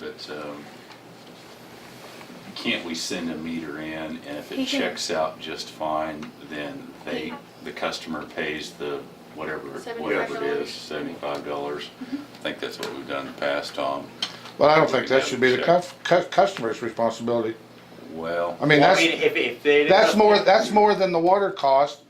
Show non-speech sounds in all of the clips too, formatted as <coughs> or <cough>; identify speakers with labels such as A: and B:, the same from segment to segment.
A: But um, can't we send a meter in and if
B: He
A: it
B: can.
A: checks out just fine, then they,
B: Yeah.
A: the customer pays the whatever, whatever it
B: $75?
A: is, seventy-five dollars?
B: Mm-hmm.
A: I think that's what we've done in the past, Tom.
C: But I don't think that should be the cuf- cu- customer's responsibility.
A: Well,
C: I mean,
D: Well,
C: that's,
D: I mean, if, if they.
C: that's more, that's more than the water cost.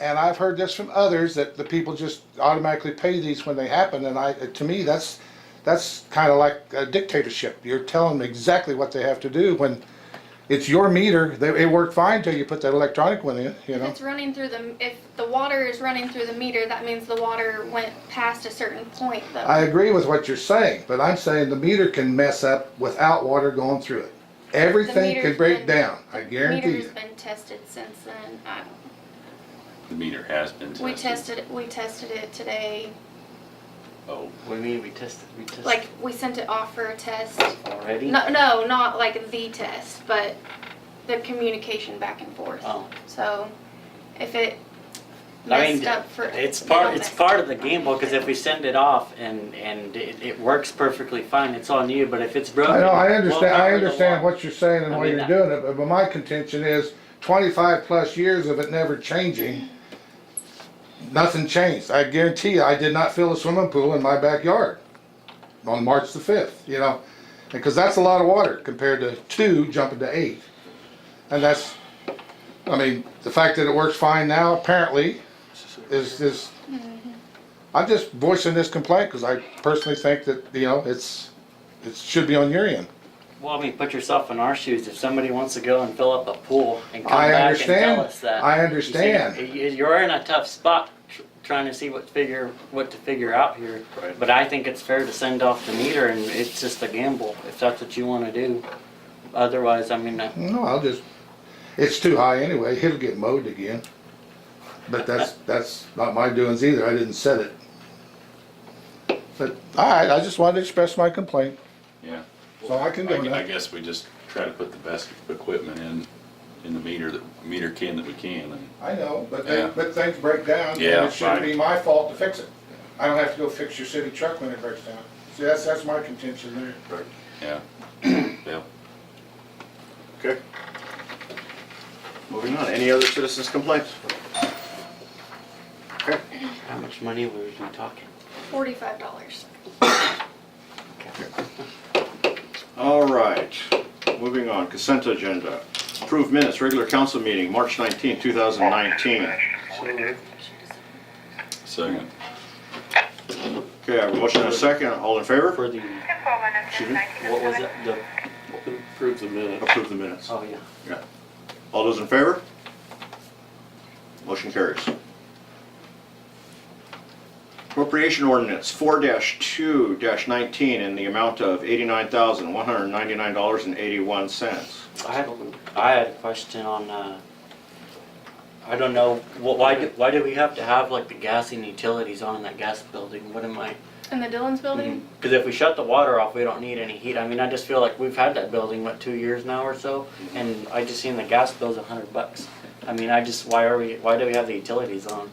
C: And I've heard this from others, that the people just automatically pay these when they happen, and I, to me, that's, that's kinda like a dictatorship. You're telling them exactly what they have to do when it's your meter, they, it worked fine till you put that electronic one in, you
B: If
C: know?
B: it's running through the, if the water is running through the meter, that means the water went past a certain point though.
C: I agree with what you're saying, but I'm saying the meter can mess up without water going through it. Everything
B: meter's
C: can break
B: been-
C: down, I guarantee
B: Meter's
C: you.
B: been tested since then. I-
A: the meter has been tested.
B: We tested, it- we tested it today,
A: Oh,
D: What do you mean, we tested, we tested?
B: like, we sent it off for a test.
D: Already?
B: No, no, not like the test, but the communication back and forth.
D: Oh.
B: So if it
D: I
B: messed
D: mean,
B: up for.
D: it's
B: it
D: part,
B: all
D: it's
B: messed
D: part
B: up.
D: of the game, because if we send it off and, and it, it works perfectly fine, it's on you, but if it's broken.
C: I know, I
D: we'll
C: understand,
D: cover
C: I
D: the
C: understand
D: one.
C: what you're saying and
D: I
C: why
D: mean, uh,
C: you're
D: I-
C: doing it, but- but my contention is twenty-five plus years of it never changing, nothing changed. I guarantee you, I did not fill a swimming pool in my backyard on March the fifth, you know? Because that's a lot of water compared to two jumping to eight. And that's, I mean, the fact that it works fine now apparently is, is,
D: Mm-hmm.
C: I'm just voicing this complaint because I personally think that, you know, it's, it should be on your end.
D: Well, I mean, put yourself in our shoes, if somebody wants to go and fill up a pool and come
C: I
D: back and
C: understand.
D: tell us that.
C: I
D: you see,
C: understand.
D: you- You're in a tough spot, tr- trying to see what figure, what to figure out here.
A: Right.
D: But I think it's fair to send off the meter, and it's just a gamble, if that's what you wanna do. Otherwise, I mean, uh,
C: No, I'll just, it's too high anyway, it'll get mowed again. But that's, that's not my doings either, I didn't set it. But, alright, I just wanted to express my complaint,
A: yeah.
C: so I can
A: I
C: go
A: I
C: now.
A: guess we just try to put the best equipment in, in the meter, that meter can that we can and.
C: I know, but
A: Yeah.
C: they, but things break down, and
A: Yeah,
C: it shouldn't
A: right.
C: be my fault to fix it. I don't have to go fix your city truck when it breaks down. See, that's, that's my contention there.
A: Yeah. <coughs> Bill?
E: Okay. Moving on, any other citizens' complaints? Okay,
D: how much money were we talking?
B: Forty-five dollars.
E: all right, moving on, consent agenda. Approved minutes, regular council meeting, March 19, 2019.
A: Second.
E: Okay, I have a motion and a second, all in favor?
D: For the,
E: Excuse me?
D: what was it, the,
F: Approve the minute.
E: Approve the minutes.
D: oh, yeah.
E: Yeah. All those in favor? Motion carries. Appropriation ordinance four two nineteen in the amount of eighty-nine thousand, one hundred ninety-nine dollars and eighty-one cents.
D: I had, a- I had a question on, uh, I don't know, wh- why, do- why do we have to have like the gas and utilities on in that gas building? What am I?
B: In the Dillon's building?
D: Because if we shut the water off, we don't need any heat. I mean, I just feel like we've had that building, what, two years now or so?
F: Mm-hmm.
D: And I just seen the gas bill's a hundred bucks. I mean, I just, why are we, why do we have the utilities on?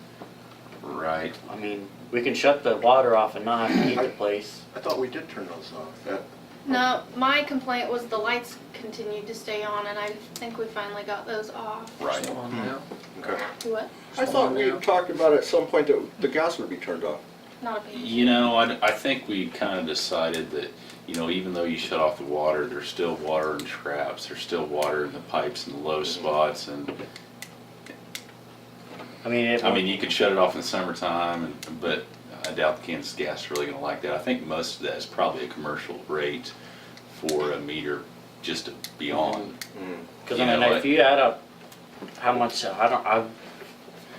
A: Right.
D: I mean, we can shut the water off and not have to heat the place.
E: I thought we did turn those off. That-
B: No, my complaint was the lights continued to stay on and I think we finally got those off.
A: Right.
E: Okay.
B: What?
E: I thought we talked about at some point that the gas would be turned off.
B: Not a big.
A: You know, I, I think we kind of decided that, you know, even though you shut off the water, there's still water in traps, there's still water in the pipes and the low spots and,
D: I mean, it.
A: I mean, you could shut it off in the summertime, and- but I doubt the Kansas Gas is really gonna like that. I think most of that is probably a commercial rate for a meter just to be on.
D: Because
A: You
D: I mean,
A: know what?
D: if you add up how much, uh, I don't, I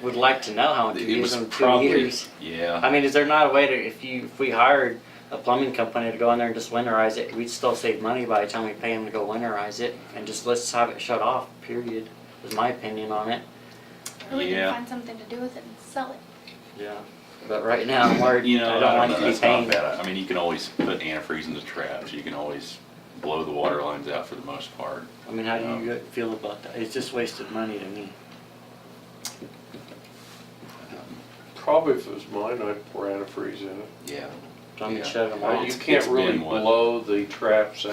D: would like to know how much you
A: It
D: use
A: was
D: in two
A: probably,
D: years.
A: yeah.
D: I mean, is there not a way to, if you, if we hired a plumbing company to go in there and just winterize it, we'd still save money by the time we pay them to go winterize it? And just let's have it shut off, period, is my opinion on it.
B: Or we
A: Yeah.
B: can find something to do with it and sell it.
D: Yeah. But right now, I'm
A: <laughs>
D: worried,
A: You know,
D: I don't like
A: know,
D: to be
A: that's not
D: paying.
A: bad. I- I mean, you can always put antifreeze in the traps, you can always blow the water lines out for the most part.
D: I mean, how do you feel about that? It's just wasted money to me.
F: Probably if it was mine, I'd pour antifreeze in it.
A: Yeah.
D: plumbing
A: Yeah.
D: shut them
F: Uh,
D: off.
F: You
A: It's-
F: can't
A: Oh, it's
F: really
A: been what?
F: blow the traps